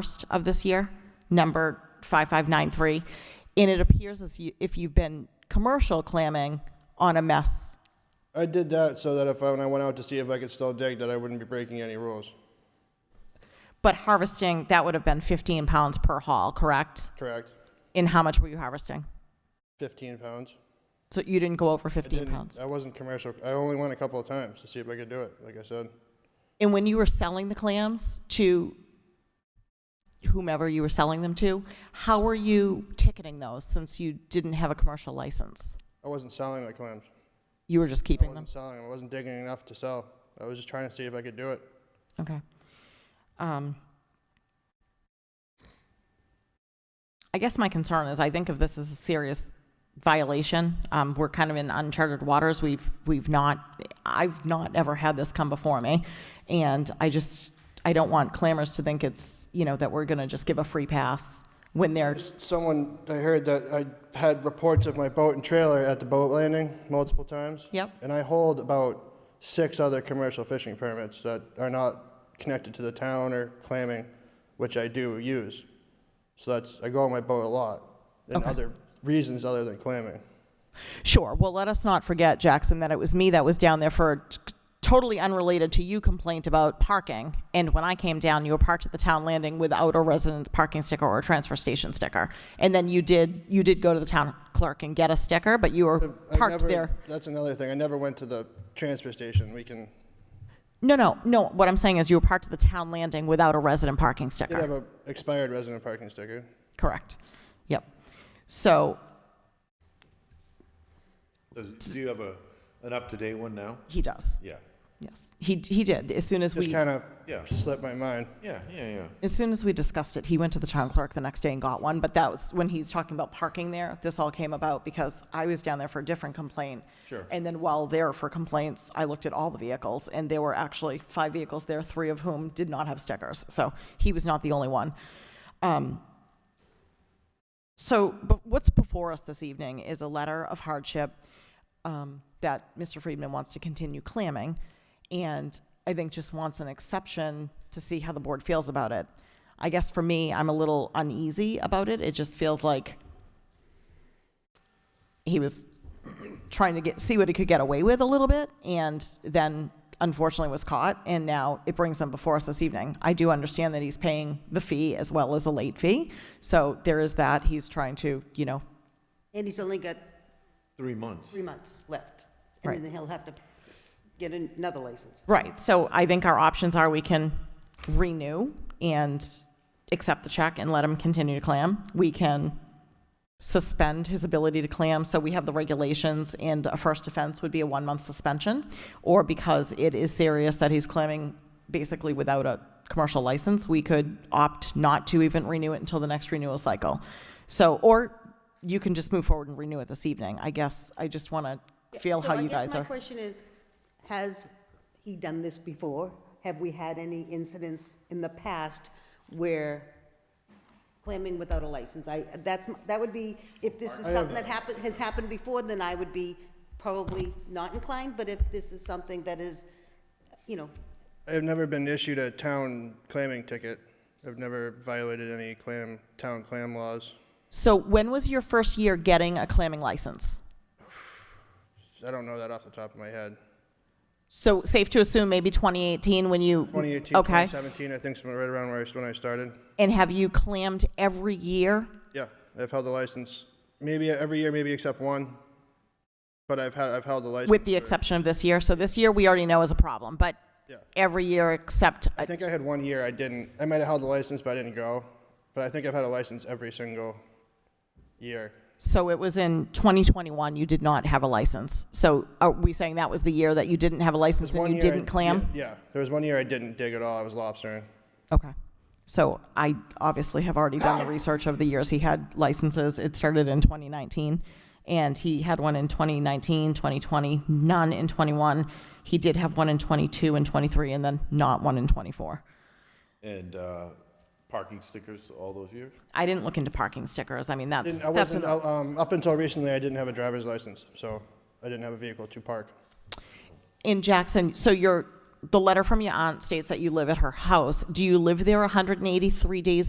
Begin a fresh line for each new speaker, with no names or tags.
1st of this year, number 5593, and it appears as you- if you've been commercial clamming on a mess.
I did that so that if I, when I went out to see if I could still dig, that I wouldn't be breaking any rules.
But harvesting, that would have been 15 pounds per haul, correct?
Correct.
And how much were you harvesting?
15 pounds.
So you didn't go over
I
15
didn't-
pounds?
I wasn't commercial. I only went a couple of times to see if I could do it, like I said.
And when you were selling the clams to whomever you were selling them to, how were you ticketing those since you didn't have a commercial license?
I wasn't selling my clams.
You were just
I
keeping them?
wasn't selling 'em. I wasn't digging enough to sell. I was just trying to see if I could do it.
Okay. Um, I guess my concern is I think if this is a serious violation, um, we're kind of in uncharted waters. We've we've not I've not ever had this come before me, and I just I don't want clamors to think it's you know that we're gonna just give a free pass when they're
Someone, I heard that I had reports of my boat and trailer at the boat landing multiple times.
Yep.
And I hold about six other commercial fishing permits that are not connected to the town or clamming, which I do use. So that's, I go on my boat a lot, and
Okay.
other reasons other than clamming.
Sure. Well, let us not forget, Jackson, that it was me that was down there for a t- totally unrelated to you complaint about parking. And when I came down, you were parked at the town landing without a residence parking sticker or a transfer station sticker. And then you did you did go to the town clerk and get a sticker, but you were
I
parked
never-
there.
That's another thing. I never went to the transfer station. We can,
No, no, no. What I'm saying is you were parked at the town landing without a resident parking sticker.
did have a expired resident parking sticker.
Correct. Yep. So
Does, do you have a, an up-to-date one now?
he does.
Yeah.
Yes. He he did. As soon as
Just
we
kind of
Yeah.
slipped my mind.
Yeah, yeah, yeah.
As soon as we discussed it, he went to the town clerk the next day and got one, but that was when he's talking about parking there. This all came about because I was down there for a different complaint.
Sure.
And then while there for complaints, I looked at all the vehicles, and there were actually five vehicles there, three of whom did not have stickers. So he was not the only one. Um, So but what's before us this evening is a letter of hardship um, that Mr. Friedman wants to continue clamming, and I think just wants an exception to see how the board feels about it. I guess for me, I'm a little uneasy about it. It just feels like he was trying to get see what he could get away with a little bit, and then unfortunately was caught, and now it brings him before us this evening. I do understand that he's paying the fee as well as a late fee, so there is that. He's trying to, you know,
And he's only got
Three months.
three months left. And then he'll have to get another license.
Right. So I think our options are we can renew and accept the check and let him continue to clam. We can suspend his ability to clam. So we have the regulations, and a first offense would be a one month suspension. Or because it is serious that he's clamming basically without a commercial license, we could opt not to even renew it until the next renewal cycle. So, or you can just move forward and renew it this evening. I guess I just want to feel how you
So I
guys
guess my
are.
question is, has he done this before? Have we had any incidents in the past where clamming without a license? I, that's, m- that would be, if this is something that happened, has happened before, then I would be probably not inclined, but if this is something that is, you know,
I've never been issued a town clamming ticket. I've never violated any clam, town clam laws.
So when was your first year getting a clamming license?
I don't know that off the top of my head.
So safe to assume maybe 2018 when you
2018,
okay.
2017, I think, is right around where I, when I started.
And have you clammed every year?
Yeah, I've held the license, maybe every year, maybe except one. But I've had, I've held the license.
With the
for-
exception of this year. So this year we already know is a problem, but
Yeah.
every year except
I think I had one year I didn't, I might have held the license, but I didn't go. But I think I've had a license every single year.
so it was in 2021 you did not have a license. So are we saying that was the year that you didn't have a license
One
and you
year I-
didn't clam?
Yeah, yeah. there was one year I didn't dig at all, I was lobstering.
Okay. So I obviously have already done the research of the years he had licenses. It started in 2019, and he had one in 2019, 2020, none in 21. He did have one in 22 and 23, and then not one in 24.
And, uh, parking stickers all those years?
I didn't look into parking stickers. I mean, that's
Didn't- I
that's
wasn't,
an-
uh, um, up until recently, I didn't have a driver's license, so I didn't have a vehicle to park.
in Jackson. So your the letter from your aunt states that you live at her house. Do you live there 183 days